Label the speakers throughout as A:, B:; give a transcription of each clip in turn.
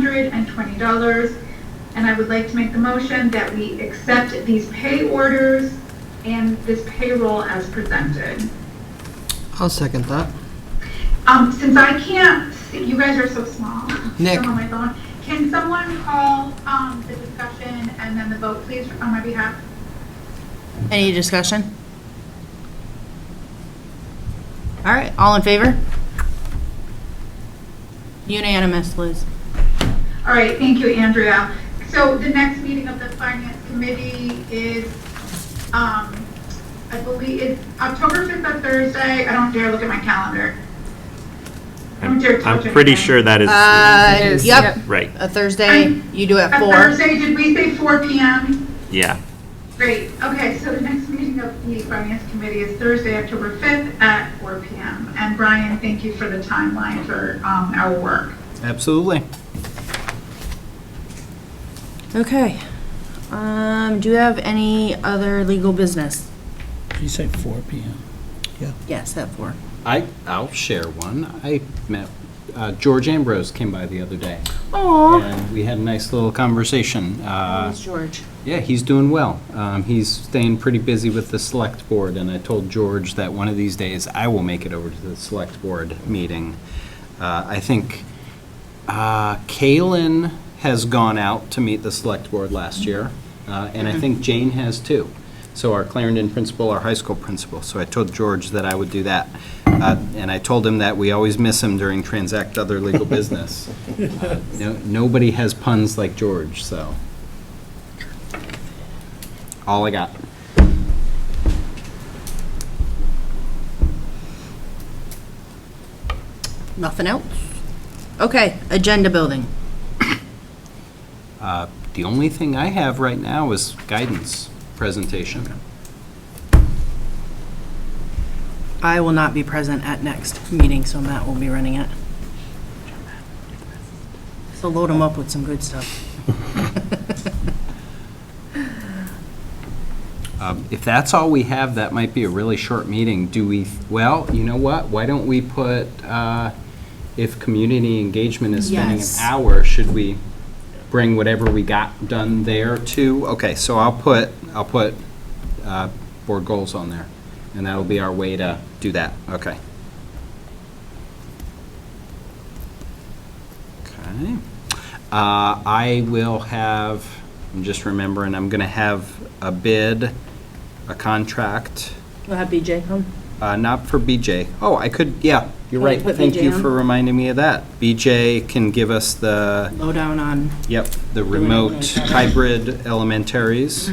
A: $4,220. And I would like to make the motion that we accept these pay orders and this payroll as presented.
B: I'll second that.
A: Um, since I can't, see you guys are so small.
B: Nick.
A: I'm on my phone. Can someone call, um, the discussion and then the vote, please, on my behalf?
C: Any discussion? All right, all in favor? Unanimous, Liz.
A: All right, thank you, Andrea. So the next meeting of the Finance Committee is, um, I believe, it's October 5th, a Thursday. I don't dare look at my calendar. I don't dare touch
D: I'm pretty
A: anything.
D: sure that is
C: Uh, yep,
D: right.
C: a Thursday, you do at
A: A
C: four.
A: Thursday, did we say 4 PM?
D: Yeah.
A: Great, okay, so the next meeting of the Finance Committee is Thursday, October 5th at 4 PM. And Brian, thank you for the timeline for um, our work.
E: Absolutely.
C: Okay. Um, do you have any other legal business?
F: You say 4 PM.
C: Yes, at four.
E: I, I'll share one. I met, uh, George Ambrose came by the other day,
C: Aw.
E: and we had a nice little conversation. Uh,
C: It's George.
E: Yeah, he's doing well. Um, He's staying pretty busy with the Select Board, and I told George that one of these days I will make it over to the Select Board meeting. Uh, I think uh, Kalen has gone out to meet the Select Board last year, uh, and I think Jane has too. So our Clarendon principal, our high school principal. So I told George that I would do that. Uh, And I told him that we always miss him during Transact Other Legal Business. Uh, no- Nobody has puns like George, so. All I got.
C: Nothing else? Okay, agenda building.
E: The only thing I have right now is guidance presentation.
C: I will not be present at next meeting, so Matt will be running it. So load him up with some good stuff.
E: Um, If that's all we have, that might be a really short meeting. Do we, well, you know what? Why don't we put, uh, if community engagement is spending an
C: Yes.
E: hour, should we bring whatever we got done there too? Okay, so I'll put, I'll put uh, board goals on there, and that'll be our way to do that. Okay. Okay. Uh, I will have, I'm just remembering, I'm going to have a bid, a contract,
C: Will have BJ come?
E: uh, not for BJ. Oh, I could, yeah,
C: Can
E: you're
C: we
E: right.
C: put
E: Thank
C: BJ
E: you
C: on?
E: for reminding me of that. BJ can give us the,
C: Lowdown on,
E: yep, the
C: it
E: remote
C: like that.
E: hybrid elementaries.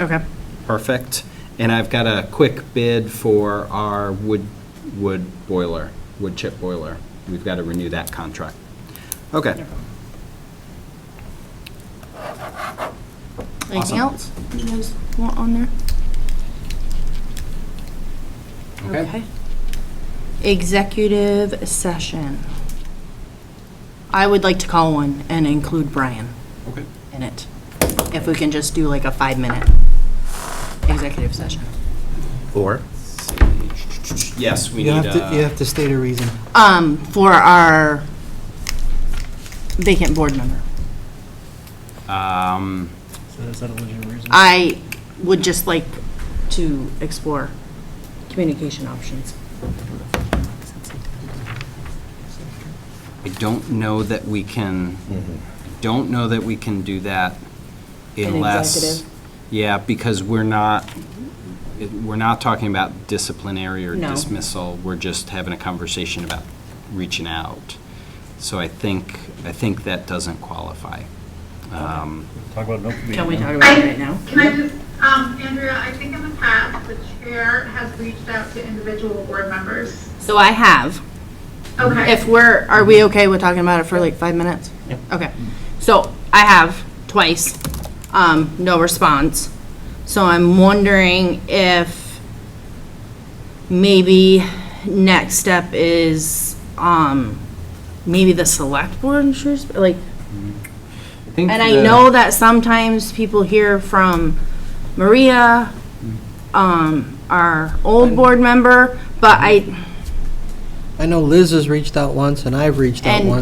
C: okay.
E: Perfect. And I've got a quick bid for our wood, wood boiler, wood chip boiler. We've got to renew that contract. Okay.
C: Anything
E: Awesome.
C: else you guys want on there? Executive session. I would like to call one and include Brian
E: Okay.
C: in it. If we can just do like a five-minute executive session.
E: Or? Yes, we
B: You
E: need
B: have to, you
E: a,
B: have to state a reason.
C: Um, for our vacant board member.
E: um,
F: So is that a legitimate reason?
C: I would just like to explore communication options.
E: I don't know that we can, I don't know that we can do that unless.
C: executive?
E: Yeah, because we're not, it- we're not talking about disciplinary or
C: No.
E: dismissal. We're just having a conversation about reaching out. So I think, I think that doesn't qualify. Um,
F: Talk about an open meeting.
C: Can we
F: huh?
C: talk about it right now?
A: Can I just, um, Andrea, I think in the past, the chair has reached out to individual board members.
C: So I have.
A: Okay.
C: If we're, are we okay with talking about it for like five minutes? Okay. So I have twice, um, no response. So I'm wondering if maybe next step is, um, maybe the select board in Shrewsbury, like,
E: think
C: and I
E: the-
C: know that sometimes people hear from Maria, um, our old board member, but I,
B: I know Liz has reached out once, and I've reached out
C: And
B: once.